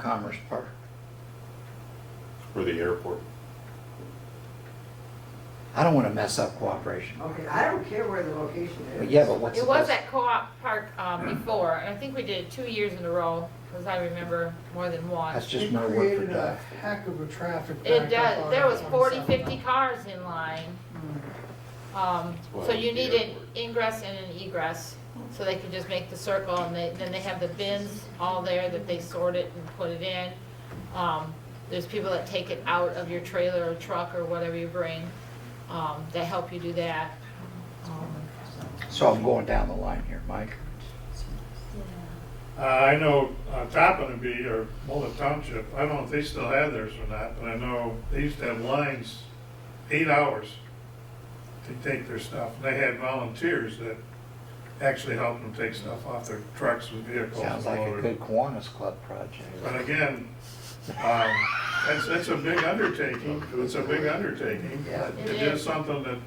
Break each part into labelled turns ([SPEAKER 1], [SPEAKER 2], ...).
[SPEAKER 1] Commerce Park.
[SPEAKER 2] or the airport.
[SPEAKER 1] I don't want to mess up cooperation.
[SPEAKER 3] Okay, I don't care where the location is.
[SPEAKER 1] But yeah, but what's the
[SPEAKER 4] It was
[SPEAKER 1] best?
[SPEAKER 4] at Co-op Park um, before, and I think we did it two years in a row, because I remember more than one.
[SPEAKER 1] That's just more work for
[SPEAKER 5] It created a
[SPEAKER 1] Doug.
[SPEAKER 5] heck of a traffic
[SPEAKER 4] It
[SPEAKER 5] backup
[SPEAKER 4] does,
[SPEAKER 5] on
[SPEAKER 4] there was 40,
[SPEAKER 5] 27.
[SPEAKER 4] 50 cars in line.
[SPEAKER 3] Mm.
[SPEAKER 4] Um,
[SPEAKER 2] why
[SPEAKER 4] So
[SPEAKER 2] I
[SPEAKER 4] you
[SPEAKER 2] like the
[SPEAKER 4] need an
[SPEAKER 2] airport.
[SPEAKER 4] ingress and an egress, so they could just make the circle, and they- then they have the bins all there that they sort it and put it in. Um, There's people that take it out of your trailer or truck or whatever you bring, um, that help you do that. Um,
[SPEAKER 1] So I'm going down the line here, Mike.
[SPEAKER 6] Uh, I know uh, Toppin would be, or Mullet Township, I don't know if they still have theirs or not, but I know they used to have lines, eight hours to take their stuff. And they had volunteers that actually helped them take stuff off their trucks with vehicles.
[SPEAKER 1] Sounds like a
[SPEAKER 6] loaded.
[SPEAKER 1] good Kiwanis Club project.
[SPEAKER 6] But again, um, that's, that's a big undertaking, it's a big undertaking.
[SPEAKER 1] Yeah.
[SPEAKER 6] It is something that,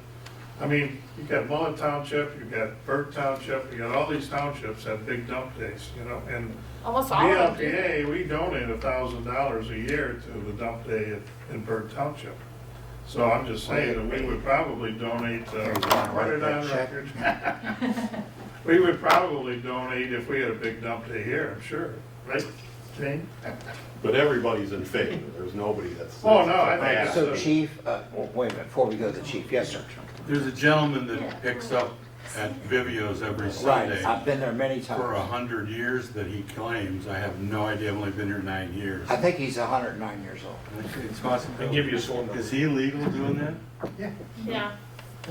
[SPEAKER 6] I mean, you got Mullet Township, you got Burke Township, you got all these townships have big dump days, you know, and
[SPEAKER 4] Almost all of them do.
[SPEAKER 6] BLPA, we donate a thousand dollars a year to the dump day at- in Burke Township. So I'm just saying that we would probably donate, uh, put it on record. We would probably donate if we had a big dump day here, I'm sure, right, Jane?
[SPEAKER 2] But everybody's in favor, there's nobody that's.
[SPEAKER 6] Oh, no, I think
[SPEAKER 2] that's-
[SPEAKER 6] it's-
[SPEAKER 1] So Chief, uh, well, wait a minute, before we go to the chief, yes, sir.
[SPEAKER 7] There's a gentleman that picks up at Vivio's every Sunday
[SPEAKER 1] I've been there many
[SPEAKER 7] for a
[SPEAKER 1] times.
[SPEAKER 7] hundred years that he claims. I have no idea, I've only been here nine years.
[SPEAKER 1] I think he's hundred and nine years old.
[SPEAKER 7] It's possible. Is he illegal doing that?
[SPEAKER 4] Yeah,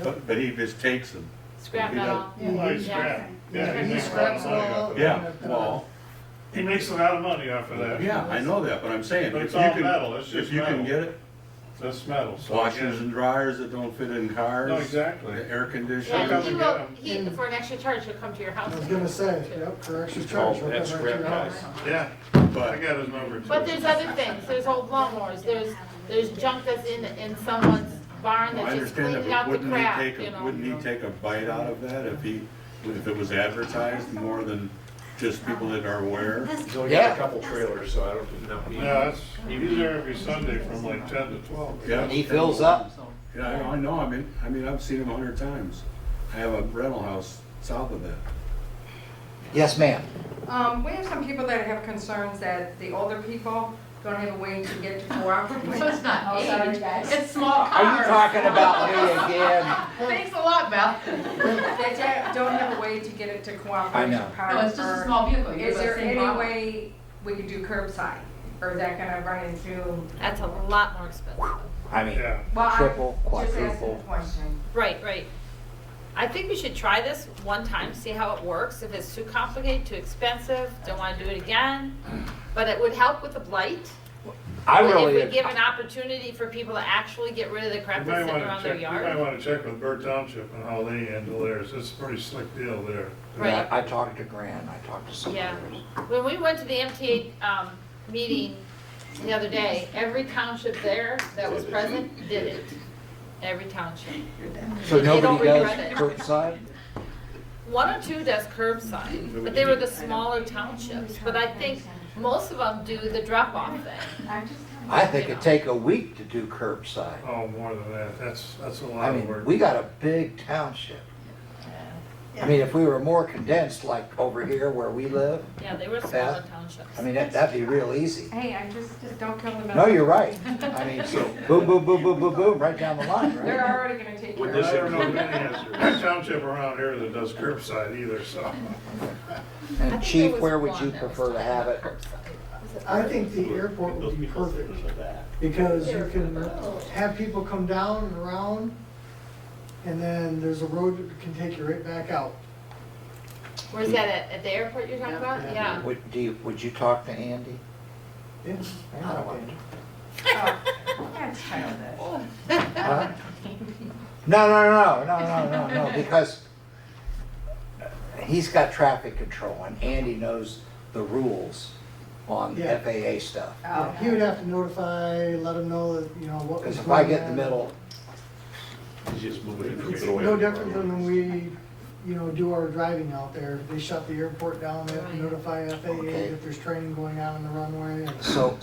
[SPEAKER 7] But, but he just takes them.
[SPEAKER 4] scrap
[SPEAKER 7] He
[SPEAKER 4] metal.
[SPEAKER 6] Well, he
[SPEAKER 4] Yeah.
[SPEAKER 6] scrap, Oh, yeah, he
[SPEAKER 4] He
[SPEAKER 6] makes a lot of
[SPEAKER 5] scraps
[SPEAKER 6] money off of that.
[SPEAKER 7] Yeah, well,
[SPEAKER 6] He makes a lot of money off of that.
[SPEAKER 7] yeah, I know that, but I'm saying,
[SPEAKER 6] But
[SPEAKER 7] if
[SPEAKER 6] it's
[SPEAKER 7] you
[SPEAKER 6] all
[SPEAKER 7] can,
[SPEAKER 6] metal, it's
[SPEAKER 7] if
[SPEAKER 6] just
[SPEAKER 7] you can
[SPEAKER 6] metal.
[SPEAKER 7] get it,
[SPEAKER 6] That's metal, so.
[SPEAKER 7] washers and dryers that don't fit in cars.
[SPEAKER 6] No, exactly.
[SPEAKER 7] the Air
[SPEAKER 4] Yeah,
[SPEAKER 7] conditioners.
[SPEAKER 4] and he
[SPEAKER 6] Come
[SPEAKER 4] will,
[SPEAKER 6] and
[SPEAKER 4] he, for an extra charge, he'll come to your house.
[SPEAKER 5] I was
[SPEAKER 4] and
[SPEAKER 5] gonna
[SPEAKER 4] do it,
[SPEAKER 5] say,
[SPEAKER 4] too.
[SPEAKER 5] yep, for extra charge. we'll
[SPEAKER 8] Oh, That's
[SPEAKER 5] come right to
[SPEAKER 8] scrap
[SPEAKER 5] your house.
[SPEAKER 8] guys.
[SPEAKER 6] Yeah, I
[SPEAKER 7] But
[SPEAKER 6] got his number too.
[SPEAKER 4] But there's other things, there's old lawnmowers, there's, there's junk that's in, in someone's barn
[SPEAKER 7] I
[SPEAKER 4] that's just
[SPEAKER 7] understand that,
[SPEAKER 4] cleaning
[SPEAKER 7] but
[SPEAKER 4] out the
[SPEAKER 7] wouldn't he
[SPEAKER 4] crap,
[SPEAKER 7] take,
[SPEAKER 4] you
[SPEAKER 7] a-
[SPEAKER 4] know?
[SPEAKER 7] wouldn't he take a bite out of that if he, if it was advertised more than just people that are aware?
[SPEAKER 8] He's only got
[SPEAKER 1] Yeah.
[SPEAKER 8] a couple trailers, so I don't, not me.
[SPEAKER 6] Yeah, that's, he's there every Sunday from like ten to twelve.
[SPEAKER 7] Yeah.
[SPEAKER 1] And he fills up.
[SPEAKER 7] Yeah, I I know, I mean, I mean, I've seen him a hundred times. I have a rental house south of that.
[SPEAKER 1] Yes, ma'am.
[SPEAKER 9] Um, we have some people that have concerns that the older people don't have a way to get to cooperative. So it's not age, it's small
[SPEAKER 1] Are you talking about me again?
[SPEAKER 9] Thanks a lot, Beth. They da- don't have a way to get it to
[SPEAKER 1] I
[SPEAKER 9] cooperation
[SPEAKER 1] know.
[SPEAKER 9] park.
[SPEAKER 10] No, it's just a
[SPEAKER 9] or-
[SPEAKER 10] small vehicle. You're
[SPEAKER 9] Is
[SPEAKER 10] the
[SPEAKER 9] there
[SPEAKER 10] same
[SPEAKER 9] any
[SPEAKER 10] model.
[SPEAKER 9] way we could do curbside? Or is that gonna run into?
[SPEAKER 4] That's a lot more expensive.
[SPEAKER 1] I mean,
[SPEAKER 6] Yeah.
[SPEAKER 9] Well, I'm
[SPEAKER 1] Triple,
[SPEAKER 9] Just asking
[SPEAKER 1] quadruple.
[SPEAKER 9] a question.
[SPEAKER 4] Right, right. I think we should try this one time, see how it works. If it's too complicated, too expensive, don't wanna do it again. But it would help with the blight.
[SPEAKER 1] I
[SPEAKER 4] If we
[SPEAKER 1] really,
[SPEAKER 4] give an opportunity for people to actually get rid of the
[SPEAKER 6] You
[SPEAKER 4] crap
[SPEAKER 6] might
[SPEAKER 4] that's sitting
[SPEAKER 6] wanna
[SPEAKER 4] around
[SPEAKER 6] check,
[SPEAKER 4] their
[SPEAKER 6] you might
[SPEAKER 4] yard.
[SPEAKER 6] wanna check with Burr Township and how they handle theirs, it's a pretty slick deal there.
[SPEAKER 4] Right.
[SPEAKER 1] I talked to Grant, I talked to some
[SPEAKER 4] Yeah.
[SPEAKER 1] others.
[SPEAKER 4] When we went to the MTA um, meeting the other day, every township there that was present did it. Every township.
[SPEAKER 1] So
[SPEAKER 4] They don't
[SPEAKER 1] nobody does
[SPEAKER 4] regret it.
[SPEAKER 1] curbside?
[SPEAKER 4] One or two does curbside, but they were the smaller townships. But I think most of them do the drop-off thing.
[SPEAKER 1] I think it'd take a week to do curbside.
[SPEAKER 6] Oh, more than that, that's, that's a
[SPEAKER 1] I
[SPEAKER 6] lot of
[SPEAKER 1] mean,
[SPEAKER 6] work.
[SPEAKER 1] we got a big township. I mean, if we were more condensed, like over here where we live,
[SPEAKER 4] Yeah, they were smaller townships.
[SPEAKER 1] I mean, that- that'd be real easy.
[SPEAKER 9] Hey, I'm just, just don't kill the messenger.
[SPEAKER 1] No, you're right. I mean, boom, boom, boom, boom, boom, boom, right down the line,
[SPEAKER 9] They're
[SPEAKER 1] right?
[SPEAKER 9] already gonna take care
[SPEAKER 8] Would
[SPEAKER 9] of
[SPEAKER 6] I
[SPEAKER 9] it.
[SPEAKER 8] this-
[SPEAKER 6] don't know of any township around here that does curbside either, so.
[SPEAKER 4] I
[SPEAKER 1] And
[SPEAKER 4] think
[SPEAKER 1] Chief,
[SPEAKER 4] there was
[SPEAKER 1] where would
[SPEAKER 4] one
[SPEAKER 1] you
[SPEAKER 4] that was
[SPEAKER 1] prefer to
[SPEAKER 4] talking
[SPEAKER 1] have it?
[SPEAKER 4] about curbside. Was it
[SPEAKER 5] I think the airport would be perfect, because you can have people come down and around, and then there's a road that can take you right back out.
[SPEAKER 4] Where's that, at, at the airport you're talking about? Yeah.
[SPEAKER 1] Would, do you, would you talk to Andy?
[SPEAKER 5] Yeah.
[SPEAKER 1] I don't want to.
[SPEAKER 9] Oh, That's childish.
[SPEAKER 1] Huh? No, no, no, no, no, no, no, no, because he's got traffic control and Andy knows the rules on
[SPEAKER 5] Yeah.
[SPEAKER 1] FAA stuff.
[SPEAKER 9] Oh.
[SPEAKER 5] He would have to notify, let them know that, you know, what was
[SPEAKER 1] Because if
[SPEAKER 5] going on.
[SPEAKER 1] I get in the middle,
[SPEAKER 8] He's just moving
[SPEAKER 5] It's
[SPEAKER 8] information.
[SPEAKER 5] no different than when we you know, do our driving out there. They shut the airport down, they have to
[SPEAKER 4] Right.
[SPEAKER 5] notify FAA
[SPEAKER 1] Okay.
[SPEAKER 5] that there's training going on in the runway and.
[SPEAKER 1] So,